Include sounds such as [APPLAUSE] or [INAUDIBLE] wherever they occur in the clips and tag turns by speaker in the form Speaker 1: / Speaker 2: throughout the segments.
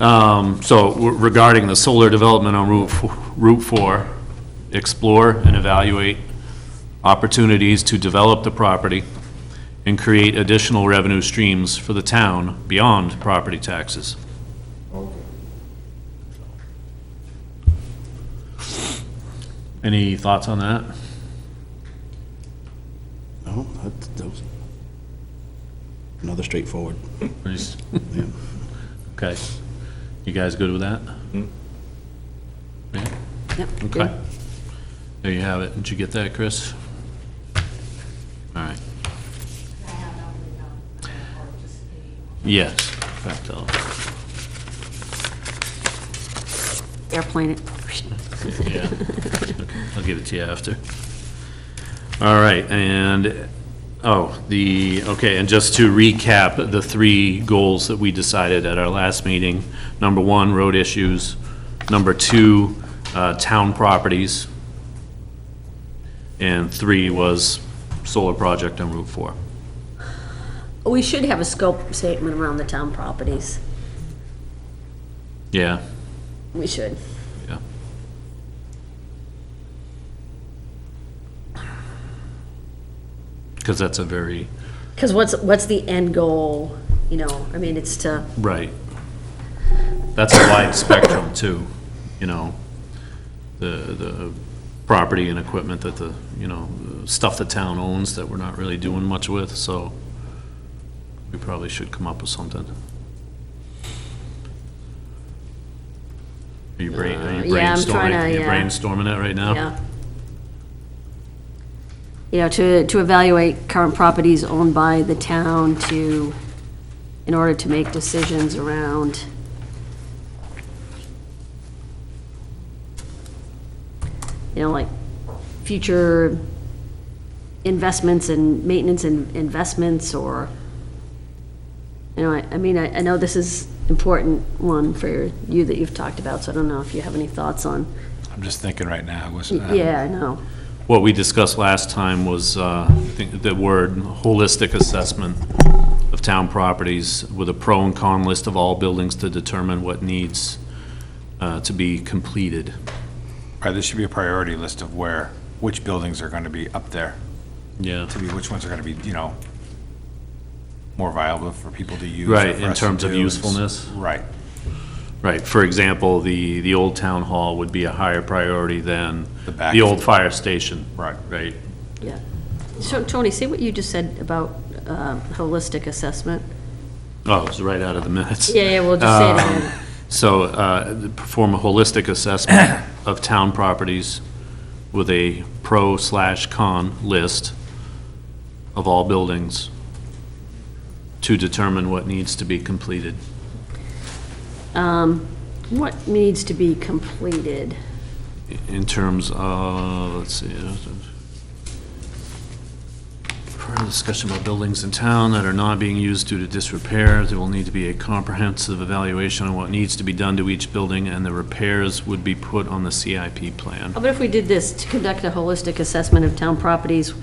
Speaker 1: Um, So re- regarding the solar development on Route, f- Route 4, explore and evaluate opportunities to develop the property and create additional revenue streams for the town beyond property taxes.
Speaker 2: Okay.
Speaker 1: Any thoughts on that?
Speaker 3: No, that, that was another straightforward.
Speaker 1: Please.
Speaker 3: Yeah.
Speaker 1: [LAUGHS] Okay. You guys good with that? Yeah?
Speaker 4: Yep.
Speaker 1: Okay. There you have it. Did you get that, Chris? All right. Yes. Fact tell.
Speaker 4: Airplane it.
Speaker 1: Yeah. I'll give it to you after. All right, and, oh, the, okay, and just to recap, the three goals that we decided at our last meeting. Number one, road issues. Number two, uh, town properties. And three was solar project on Route 4.
Speaker 4: We should have a scope statement around the town properties.
Speaker 1: Yeah,
Speaker 4: We should.
Speaker 1: yeah. Because that's a very,
Speaker 4: Because what's, what's the end goal, you know? I mean, it's to,
Speaker 1: Right. That's a wide spectrum too, you know, the, the property and equipment that the, you know, stuff the town owns that we're not really doing much with, so we probably should come up with something. Are you brain, are you
Speaker 4: Uh, yeah, I'm trying to,
Speaker 1: brainstorming, you
Speaker 4: yeah.
Speaker 1: brainstorming it right now?
Speaker 4: yeah. You know, to, to evaluate current properties owned by the town to, in order to make decisions around. You know, like future investments and maintenance and investments or, you know, I, I mean, I, I know this is important one for you that you've talked about, so I don't know if you have any thoughts on,
Speaker 5: I'm just thinking right now, um, wasn't I?
Speaker 4: yeah, I know.
Speaker 1: What we discussed last time was uh, I think the word holistic assessment of town properties with a pro and con list of all buildings to determine what needs uh, to be completed.
Speaker 5: Right, there should be a priority list of where, which buildings are gonna be up there,
Speaker 1: Yeah.
Speaker 5: to be, which ones are gonna be, you know, more viable for people to use. or
Speaker 1: Right,
Speaker 5: for
Speaker 1: in
Speaker 5: us to
Speaker 1: terms of
Speaker 5: do, and s-
Speaker 1: usefulness.
Speaker 5: Right,
Speaker 1: Right, for example, the, the old town hall would be a higher priority than
Speaker 5: The back.
Speaker 1: the old fire station.
Speaker 5: Right.
Speaker 1: Right,
Speaker 4: Yeah. So Tony, see what you just said about um, holistic assessment?
Speaker 1: oh, it's right out of the minutes.
Speaker 4: Yeah, yeah, we'll just say it again.
Speaker 1: So, uh, perform a holistic assessment of town properties with a pro slash con list of all buildings to determine what needs to be completed.
Speaker 4: Um, What needs to be completed?
Speaker 1: in terms of, let's see, uh, further discussion about buildings in town that are not being used due to disrepair, there will need to be a comprehensive evaluation on what needs to be done to each building, and the repairs would be put on the CIP plan.
Speaker 4: How about if we did this, to conduct a holistic assessment of town properties,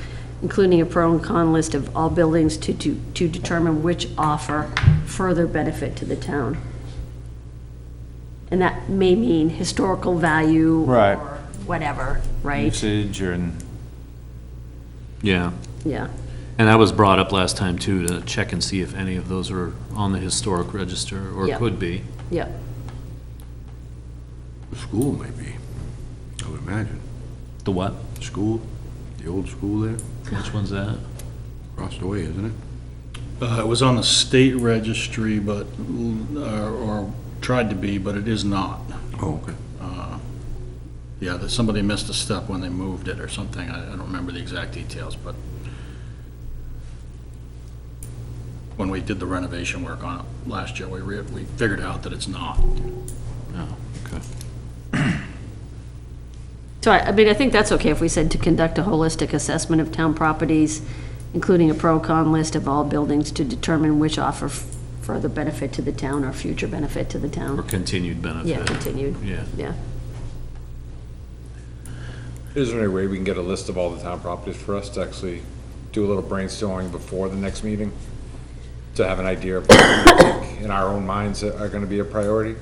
Speaker 4: including a pro and con list of all buildings to, to, to determine which offer further benefit to the town? And that may mean historical value.
Speaker 5: Right.
Speaker 4: Or whatever, right?
Speaker 5: usage and,
Speaker 1: Yeah,
Speaker 4: Yeah.
Speaker 1: and that was brought up last time, too, to check and see if any of those are on the historic register, or
Speaker 4: Yeah.
Speaker 1: could be.
Speaker 4: Yeah.
Speaker 2: The school might be, I would imagine.
Speaker 1: The what?
Speaker 2: The school, the old school there,
Speaker 1: Which one's that?
Speaker 2: across the way, isn't it?
Speaker 6: Uh, It was on the state registry, but, or- or tried to be, but it is not. Uh,
Speaker 2: Oh, okay.
Speaker 6: Yeah, that somebody missed a step when they moved it or something. I I don't remember the exact details, but when we did the renovation work on it last year, we, re- we figured out that it's not.
Speaker 1: Oh, okay.
Speaker 4: So I, I mean, I think that's okay if we said to conduct a holistic assessment of town properties, including a pro-con list of all buildings to determine which offer f- further benefit to the town or future benefit to the
Speaker 1: Or
Speaker 4: town.
Speaker 1: continued benefit.
Speaker 4: Yeah, continued,
Speaker 1: Yeah.
Speaker 4: yeah.
Speaker 7: Is there any way we can get a list of all the town properties for us to actually do a little brainstorming before the next meeting? To have an idea of what we think in our own minds that are gonna be a priority?